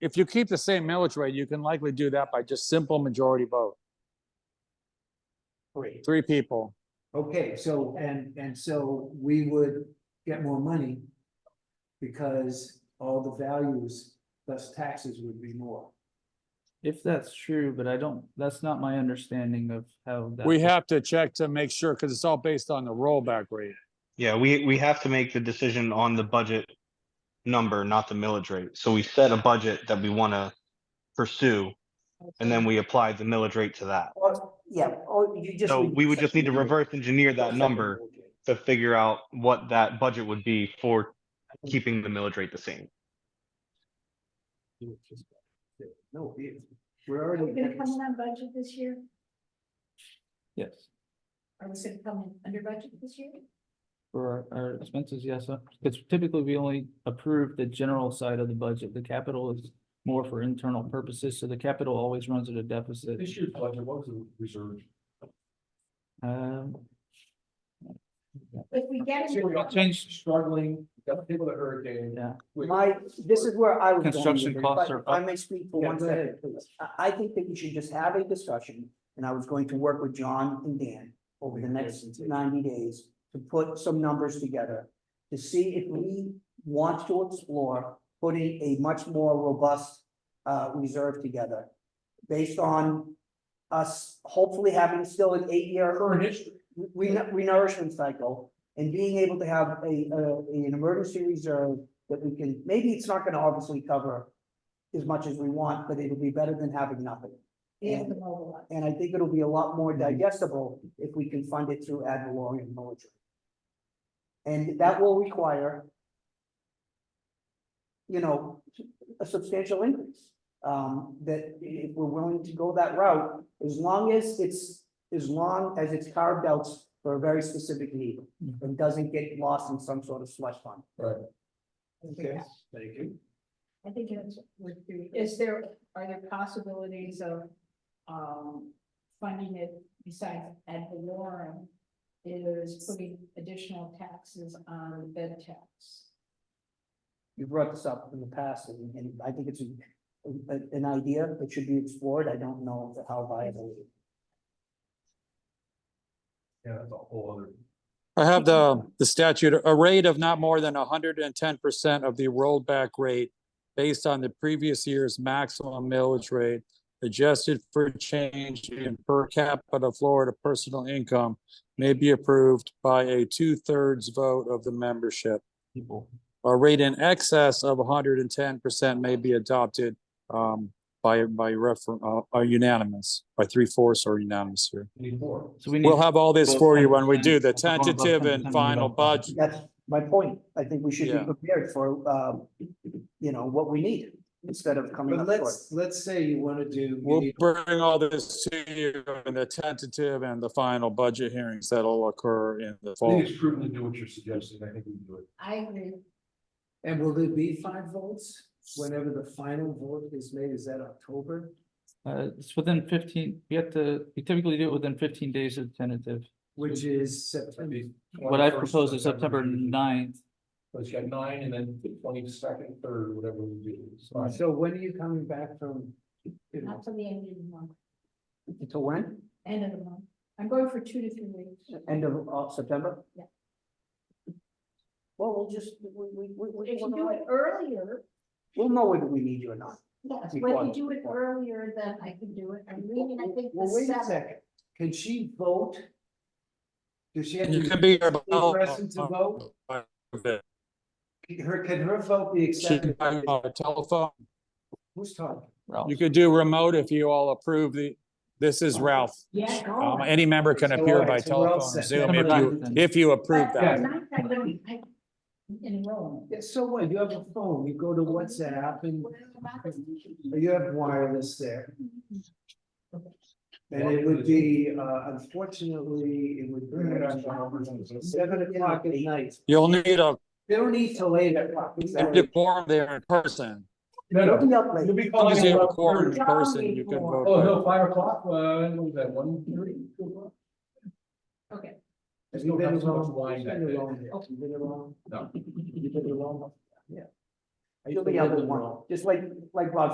if you keep the same millage rate, you can likely do that by just simple majority vote, Great. three people. Okay, so, and, and so we would get more money because all the values, thus taxes would be more. If that's true, but I don't, that's not my understanding of how. that We works. have to check to make sure, because it's all based on the rollback rate. Yeah, we, we have to make the decision on the budget number, not the millage rate. So we set a budget that we wanna pursue, and then we apply the millage rate to that. Or, yeah, oh, or you just. So we would just need to reverse engineer that Second number budget. to figure out what that budget would be for keeping the millage rate the same. No, it- we're Are we already. gonna come in on budget this year? Yes, Are we gonna come in under budget this year? for our- our expenses, yes, uh, because typically we only approve the general side of the budget. The capital is more for internal purposes, so the capital always runs at a deficit. This year's budget, what was the reserve? Um, If we get So we it, got change struggling, we got people that hurricane. Yeah. we- My, this is where I was. going with Construction it, costs but are if I up. may speak for Yeah, one go second, ahead, please. I, I think that we should just have a discussion, and I was going to work with John and Dan over the next ninety days to put some numbers together to see if we want to explore putting a much more robust uh, reserve together based on us hopefully having still an eight-year Current history. re- renourishment cycle and being able to have a, a, an emergency reserve that we can, maybe it's not gonna obviously cover as much as we want, but it'll be better than having nothing. is the mobile one. And I think it'll be a lot more digestible if we can fund it through ad valorem military. And that will require you know, a substantial increase. Um, that if we're willing to go that route, as long as it's, as long as it's carved out for a very specific need and doesn't get lost in some sort of slush fund. Okay, thank you. I think it's, would be, is there, are there possibilities of, um, funding it besides ad valorem? Is putting additional taxes on the bed tax? You brought this up in the past and, and I think it's an, an idea that should be explored. I don't know how viable. it is. Yeah, that's a whole other. I have the, the statute, a rate of not more than hundred and ten percent of the rollback rate based on the previous year's maximum millage rate, adjusted for change in per capita Florida personal income may be approved by a two-thirds vote of the membership. people, A rate in excess of hundred and ten percent may be adopted, um, by, by refer, uh, uh, unanimous, by three-fourths or unanimous here. Anymore. so we need. We'll have all this Well, for you when we do the 10%, above tentative 10% and final above budget. budget. That's my point. I think we should Yeah. be prepared for, um, you know, what we need instead of coming But up short. let's, let's say you wanna do. you We'll need- bring all this to you in the tentative and the final budget hearings that'll occur in the I fall. think it's prudent to do what you're suggesting. I think we can do it. I agree. And will there be five votes whenever the final vote is made? Is that October? Uh, it's within fifteen, we have to, we typically do it within fifteen days of tentative. Which is September. What I propose is September 9th. So it's got nine and then twenty-second, third, whatever we do. So So when are you coming back from? you know, Not till the end of the month, Until when? end of the month. I'm going for two to three weeks. End of, uh, of September? Yeah. Well, we'll just, we, we, we, we- If you do it earlier, we'll know whether we need you or not. yes, You when want you it. do it earlier, then I can do it. I'm leaving, I think, Well, the wait a seventh. second. Can she vote? Does she have You can Oh, to be. here be present to vote? by- Her, can her vote be She accepted? can by our Telephone, Who's talking? Ralph. you could do remote if you all approve the, this is Ralph. Yeah, go Um, on. any member can So, appear all by right, so we're all telephone, or set. Zoom, if September you, 9th. if you approve But that. not that I don't- I- Enroll. Yeah, so what? You have a phone, you go to WhatsApp and What about the- you have wireless there. And it would be, uh, unfortunately, it would be seven o'clock at night. You'll need a, They don't need to lay that clock. a quorum there in person. No, It'll no, be up late. you'll be As long calling. as you have a about quorum third. in person, you can vote. Oh, no, five o'clock, uh, what was that, one thirty? two o'clock? Okay, You Have you don't been have so much alone? wine You've that been day. alone here. You've been alone? No. You've been alone? Yeah. I used You'll to be live up at in one, Rome. just like, like Bob